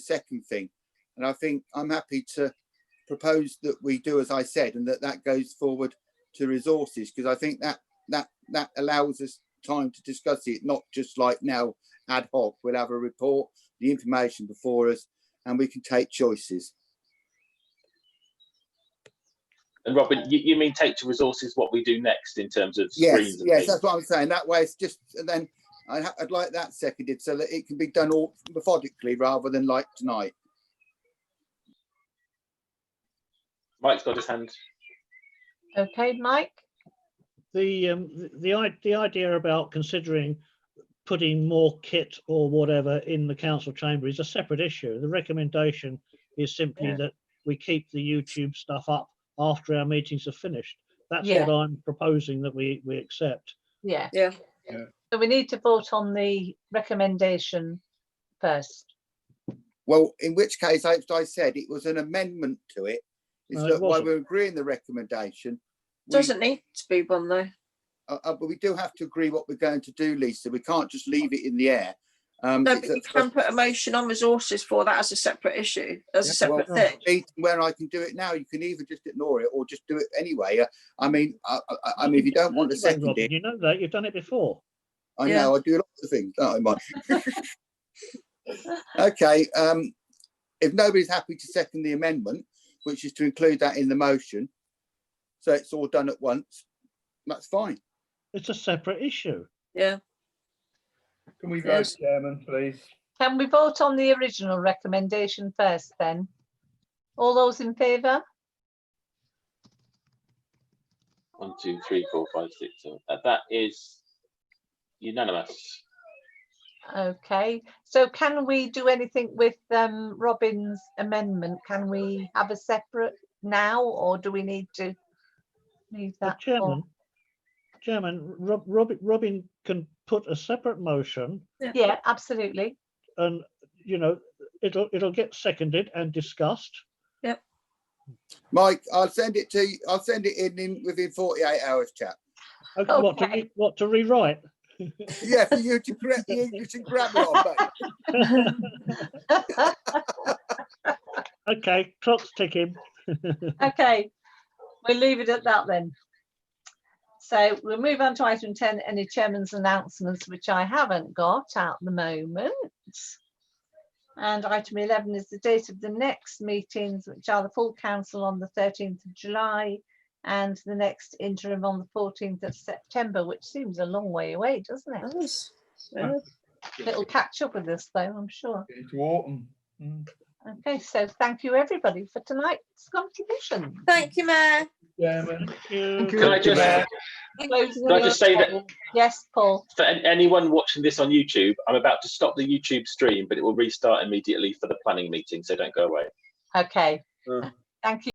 second thing. And I think I'm happy to propose that we do as I said, and that that goes forward to resources because I think that that that allows us time to discuss it, not just like now ad hoc. We'll have a report, the information before us, and we can take choices. And Robin, you, you mean take to resources what we do next in terms of Yes, screens and yes, things? that's what I'm saying. That way, it's just and then I'd, ha- I'd like that seconded so that it can be done all methodically rather than like tonight. Mike's got his hand. Okay, Mike? the um, th- the i- the idea about considering putting more kit or whatever in the council chamber is a separate issue. The recommendation is simply Yeah. that we keep the YouTube stuff up after our meetings are finished. That's Yeah. what I'm proposing that we we accept. Yeah. Yeah. So we need to vote on the recommendation first. Well, in which case, as I said, it was an amendment to it. It's No, Uh, it that while wasn't. we're agreeing the recommendation, we- Doesn't need to be one though. uh, uh, but we do have to agree what we're going to do, Lisa. We can't just leave it in the air. Um, No, it's but a- you can put a motion on resources for that as a separate issue, as a Yeah, separate well, thing. meeting where I can do it now. You can either just ignore it or just do it anyway. Uh, I mean, I, I, I mean, if you don't want to Anyway, second Robin, it, You know that, you've done it before. I Yeah. know I do lots of things, don't I, Mike? okay. Um, if nobody's happy to second the amendment, which is to include that in the motion, so it's all done at once, that's fine. It's a separate issue. Yeah, Can we vote, Yes. Chairman, please? Can we vote on the original recommendation first then? All those in favour? One, two, three, four, five, six, seven. Uh, That is unanimous. Okay, so can we do anything with um Robin's amendment? Can we have a separate now or do we need to leave The that? for- chairman, chairman, Rob, Robin, Robin can put a separate motion Yeah, absolutely. and, you know, it'll, it'll get seconded and discussed. Mike, I'll send it to you. I'll send it in, in within 48 hours, chap. Okay, what to, Okay. re- what to rewrite? Yeah, for you to correct the English and grammar on, but Okay, clock's ticking. Okay, we'll leave it at that then. So we'll move on to item ten, any chairman's announcements, which I haven't got at the moment. And item eleven is the date of the next meetings, which are the full council on the thirteenth of July and the next interim on the fourteenth of September, which seems a long way away, doesn't it? nice. Yeah. It'll catch up with us though, I'm sure. It's Wharton. Mm. Okay, so thank you everybody for tonight's contribution. Thank you, Mayor. Chairman. Thank Can I Thank you, Mayor. just, Can I just say that- Yes, Paul. for an- anyone watching this on YouTube, I'm about to stop the YouTube stream, but it will restart immediately for the planning meeting, so don't go away. Okay. Uh. Thank you.